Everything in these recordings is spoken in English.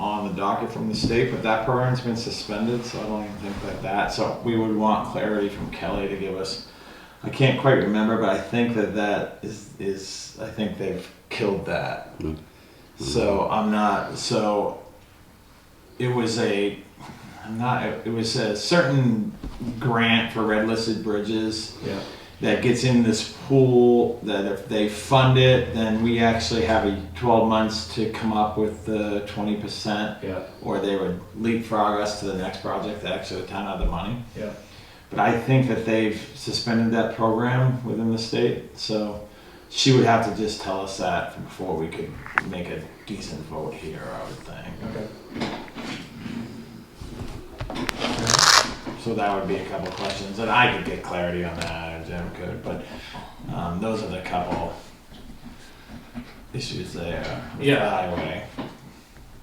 on the docket from the state, but that program's been suspended, so I don't even think that that, so we would want clarity from Kelly to give us. I can't quite remember, but I think that that is, is, I think they've killed that. Mm. So I'm not, so it was a, I'm not, it was a certain grant for red listed bridges Yeah. that gets in this pool that if they fund it, then we actually have a 12 months to come up with the 20% Yeah. or they would leapfrog us to the next project that actually the town had the money. Yeah. But I think that they've suspended that program within the state, so she would have to just tell us that before we could make a decent vote here, I would think. Okay. So that would be a couple questions, and I could get clarity on that, or Jim could, but um, those are the couple issues there. with the Yeah. Highway.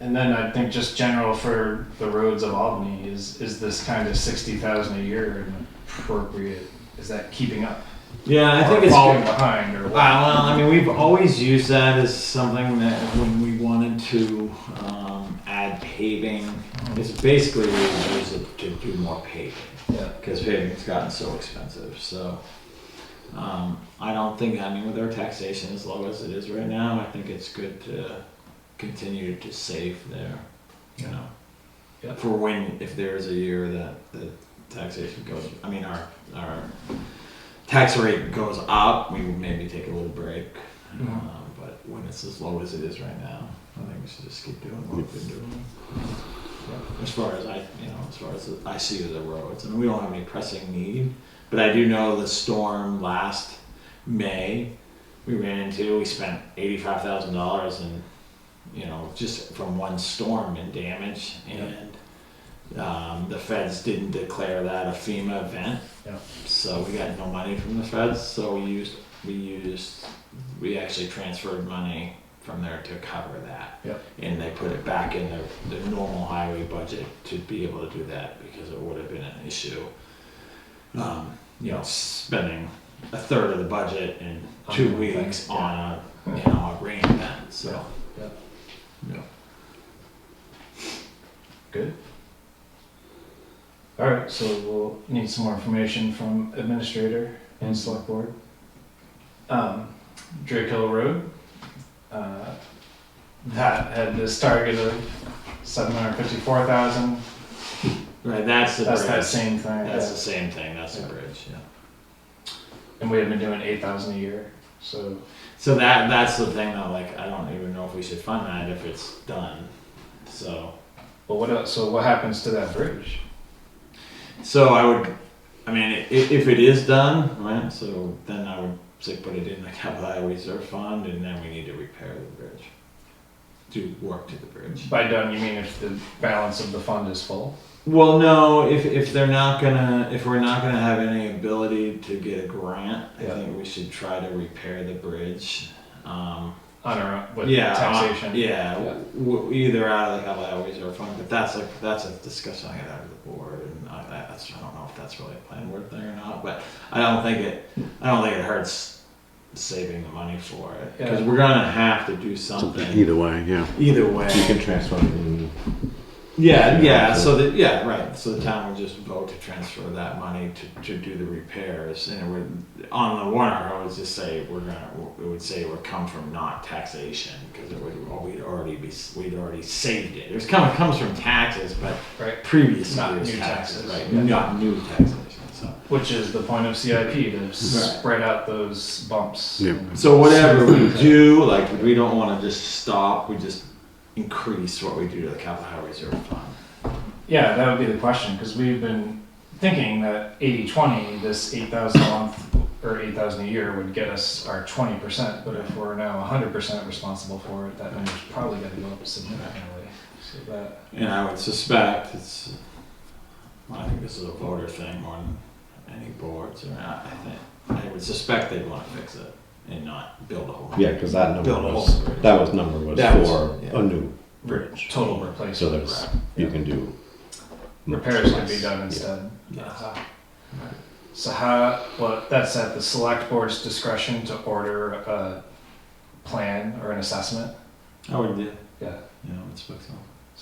And then I think just general for the roads of Albany is is this kind of sixty thousand a year an appropriate? Is that keeping up? Yeah, I Or think it's falling behind or what? Wow, well, I mean, we've always used that as something that when we wanted to um, add paving, it's basically we use it to do more paving Yeah. because paving's gotten so expensive. So um, I don't think, I mean, with our taxation as low as it is right now, I think it's good to continue to save there, you know, Yeah. for when, if there is a year that the taxation goes, I mean, our, our tax rate goes up, we would maybe take a little break. Mhm. Um, but when it's as low as it is right now, I think we should just keep doing what we've been doing. As far as I, you know, as far as I see the roads, and we don't have any pressing need, but I do know the storm last May, we ran into, we spent eighty-five thousand dollars and, you know, just from one storm in damage, and um, the feds didn't declare that a FEMA event. Yeah. So we got no money from the feds, so we used, we used, we actually transferred money from there to cover that. Yeah. And they put it back in the, the normal highway budget to be able to do that, because it would have been an issue. Um, you know, spending a third of the budget in On two one thing, weeks yeah. on a, you know, a rain event, so. Yeah, Yeah. Good. All right, so we'll need some more information from administrator and select board. Um, Drake Hill Road, uh, that had this target of seven hundred fifty-four thousand. Right, that's the That's that bridge. same thing. That's the yeah. same thing, that's the Yeah. bridge, yeah. And we had been doing eight thousand a year, so So that, that's the thing that like, I don't even know if we should fund that if it's done, so. But what else? So what happens to that bridge? So I would, I mean, i- if it is done, right, so then I would say put it in the capital outlay reserve fund and then we need to repair the bridge. Do work to the bridge. By done, you mean if the balance of the fund is full? Well, no. If if they're not gonna, if we're not gonna have any ability to get a grant, I Yeah. think we should try to repair the bridge. Um, On our own, with yeah, uh, taxation. yeah, Yeah. W- either out of the capital outlays or fund, but that's like that's a discussion I had out of the board, and I, that's I don't know if that's really a plan board thing or not, but I don't think it. I don't think it hurts saving the money for it because Yeah. we're gonna have to do something Either way, yeah. either way. You can transfer it in. Yeah, Yeah, yeah, so- so that, yeah, right, so the town would just vote to transfer that money to, to do the repairs, and it would, on the warrant, I would just say, we're gonna, it would say it would come from not taxation, because it would, well, we'd already be, we'd already saved it, it was coming, comes from taxes, but Right. previous Not year's new taxes, taxes. right, Yeah. not new taxation, so. Which is the point of CIP to spread out those bumps. Yeah. and- So whatever we do, like, we don't wanna just stop, we just increase what we do to the capital highway reserve fund. Yeah, that would be the question because we've been thinking that 80 20, this 8,000 a month or 8,000 a year would get us our 20%. But if we're now 100% responsible for it, that number's probably got to go up significantly. So that And I would suspect it's, I think this is a voter thing more than any boards or I I think, I would suspect they'd wanna fix it and not build a whole. Yeah, because that number Build a whole was bridge. that was number was That was- for yeah. a new bridge, total so replacement. there's Right. you Yeah. can do Repairs can be done instead. Yes. Uh-huh. So how, well, that's at the select board's discretion to order a plan or an assessment. I would do, Yeah, you know, I would expect so.